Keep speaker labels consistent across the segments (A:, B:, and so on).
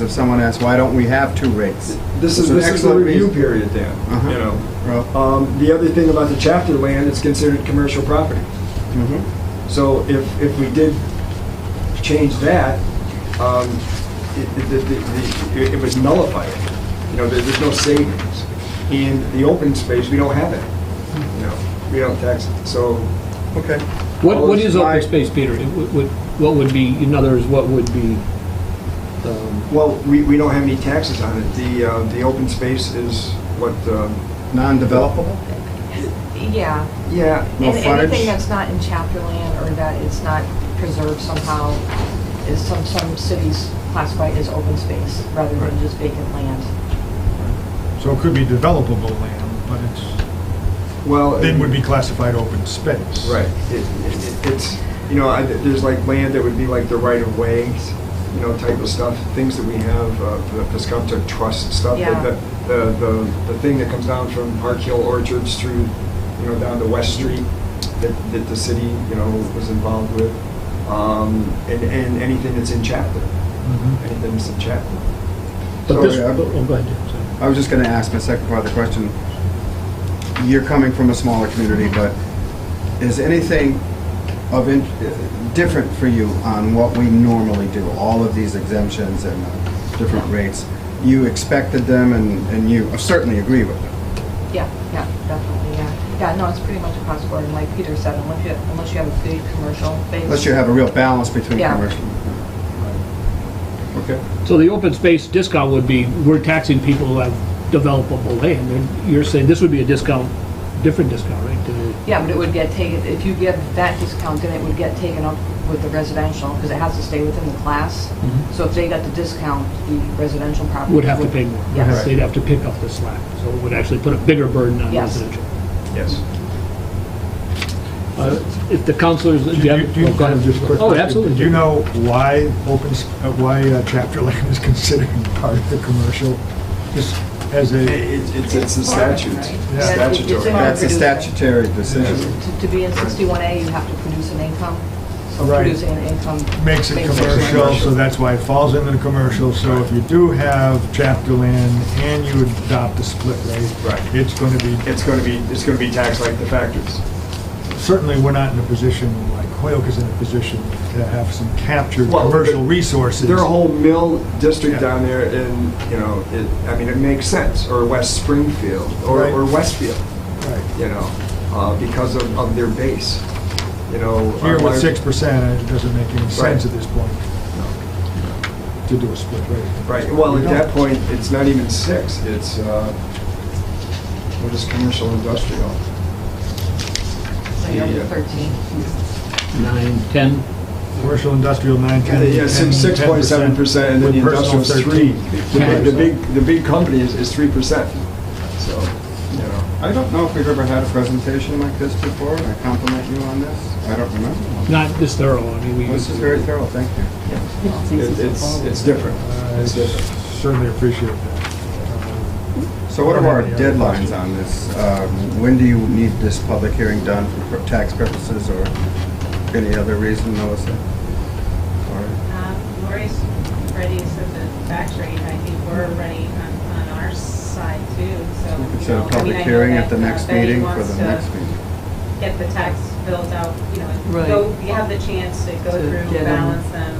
A: If someone asks, why don't we have two rates?
B: This is,
A: So
B: this is the
A: excellent
B: review
A: reason.
B: period, Uh-huh. Dan, you know.
A: Well,
B: Um, The other thing about the chapter land, it's considered commercial property.
A: mhm.
B: So if, if we did change that, um, it, it- it- it- it was nullified. You know, there- there's no savings. And the open space, we don't have it, you know, we don't tax it. So
A: okay.
C: What,
A: Well,
C: what
A: it's
C: is
A: my-
C: open space, Peter? It would- would- What would be, in other words, what would be, um,
B: Well, we, we don't have any taxes on it. The, uh, the open space is what, um,
A: Non-developable?
D: Yeah.
B: yeah,
A: No
D: And
A: frontage?
D: anything that's not in chapter land or that is not preserved somehow is some, some cities classify as open space rather than just vacant land.
E: So it could be developable land, but it's,
B: well.
E: then would be classified open space.
B: Right. It- it- It's, you know, I- there's like land that would be like the right of ways, you know, type of stuff, things that we have, uh, the Piscata Trust stuff.
D: Yeah.
B: The, the, the the thing that comes down from Park Hill Orchards through, you know, down to West Street that, that the city, you know, was involved with. Um, and, and anything that's in chapter,
E: Mhm.
B: anything that's in chapter.
C: but this,
A: Sorry, I-
C: oh, go ahead. Dan, sorry.
A: I was just gonna ask my second part of the question. You're coming from a smaller community, but is anything of, in- different for you on what we normally do? All of these exemptions and uh, different rates? You expected them and, and you certainly agree with them?
D: Yeah, yeah, definitely, yeah. Yeah, no, it's pretty much across the board. And like Peter said, unless you, unless you have a big commercial base.
A: Unless you have a real balance between
D: Yeah.
A: commercial. Okay.
C: So the open space discount would be, we're taxing people who have developable land, and you're saying this would be a discount, different discount, right? to the-
D: Yeah, but it would get taken, if you give that discount, then it would get taken up with the residential because it has to stay within the class. So if they got the discount, the residential property.
C: Mm-hmm. Would have to pay more.
D: Yes.
C: They'd have to pick up the slack, so it would actually put a bigger burden on
D: Yes.
C: residential.
B: Yes.
C: Uh, If the counselors, do
E: Do
C: you
E: you,
C: have?
E: do you
C: oh, go ahead.
E: have just a quick?
C: Oh,
E: question?
C: absolutely.
E: Do you know why open, s- uh, why uh, chapter land is considered part of the commercial? Just as
B: It-
E: a,
B: it- It's, it's the
D: Farming,
B: statutes,
D: right?
E: Yeah.
B: statutory.
D: It's in our
A: That's a
D: producing.
A: statutory decision.
D: To to be in 61A, you have to produce an income. So
E: Right.
D: producing an income.
E: makes it commercial, so that's why it falls into the commercial. So if you do have chapter land and you adopt a split rate.
B: Right.
E: It's going to be,
B: It's gonna be, it's gonna be taxed like the factors.
E: certainly, we're not in a position, like Hoyoke is in a position to have some captured
B: Well,
E: commercial
B: there-
E: resources.
B: Their whole mill district
E: Yeah.
B: down there in, you know, it, I mean, it makes sense, or West Springfield, or,
E: Right.
B: or Westfield,
E: Right.
B: you know, uh, because of, of their base, you know.
E: Here
B: our-
E: with six percent, it doesn't make any sense
B: Right.
E: at this point to do a split rate.
B: Right, well,
E: We
B: at
E: don't.
B: that point, it's not even six, it's, uh, what is commercial industrial?
D: So you're up to
B: Yeah.
D: 13.
C: Nine, 10,
E: Commercial, industrial, nine,
B: Yeah,
E: ten.
B: yeah, six, six point seven percent, and then the industrial's three. The big, the big, the big company is, is three percent, so, you know.
A: I don't know if we've ever had a presentation like this before, and I compliment you on this. I don't remember. one.
C: not this thorough, I mean, we.
A: This is very thorough, thank you.
B: It- It's, it's different.
E: I
B: It's different.
E: certainly appreciate that.
A: So what are our deadlines on this? Um, When do you need this public hearing done for pr- tax purposes or any other reason, Melissa? All right.
F: Um, Lori's ready, so the tax rate, I think we're ready on, on our side too, so.
A: We could
F: you
A: set a
F: know, I
A: public
F: mean, I know
A: hearing at
F: that,
A: the
F: uh,
A: next
F: Betty
A: meeting for
F: wants
A: the
F: to
A: next meeting.
F: Get the tax bills out, you know,
G: Right.
F: go, you have the chance to go
G: To
F: through,
G: get 'em.
F: balance them.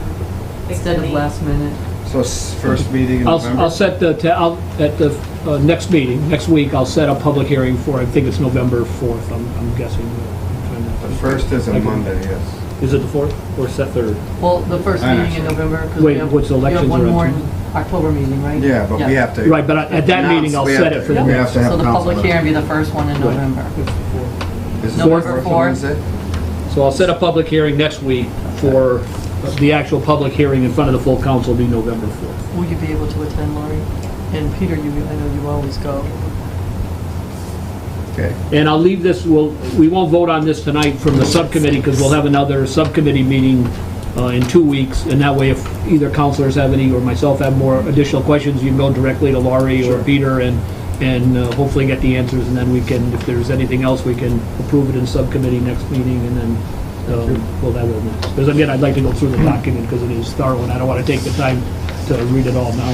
F: fix
G: Instead of
F: any-
G: last minute.
A: So s- first meeting in
C: I'll,
A: November?
C: I'll set the, ta- I'll, at the uh, next meeting, next week, I'll set a public hearing for, I think it's November 4th, I'm I'm guessing. I'm trying to-
A: The first is
C: I
A: a
C: can-
A: Monday, yes.
C: Is it the 4th or is that 3rd?
G: Well, the first
A: I know,
G: meeting in
A: sorry.
G: November, because
C: Wait,
G: we have,
C: what's
G: we have
C: elections are
G: one
C: on
G: more
C: too?
G: in October meeting, right?
A: Yeah, but we have to.
C: Right, but at- at that
A: announce-
C: meeting, I'll
A: we
C: set
A: have
C: it
A: to-
C: for the-
A: We have to have
G: So the public
A: council.
G: hearing will be the first one in
C: Right.
G: November.
A: This is the
G: November
A: fourth
G: fourth.
A: Wednesday?
C: So I'll set a public hearing next week for, the actual public hearing in front of the full council will be November 4th.
G: Will you be able to attend, Lori? And Peter, you, I know you always go.
A: Okay.
C: And I'll leave this, we'll, we won't vote on this tonight from the subcommittee, because we'll have another subcommittee meeting uh, in two weeks, and that way if either counselors have any, or myself have more additional questions, you can go directly to Laurie or Peter and, and uh, hopefully get the answers, and then we can, if there's anything else, we can approve it in subcommittee next meeting, and then, um, well, that will, because again, I'd like to go through the document, because it is thorough, and I don't want to take the time to read it all now.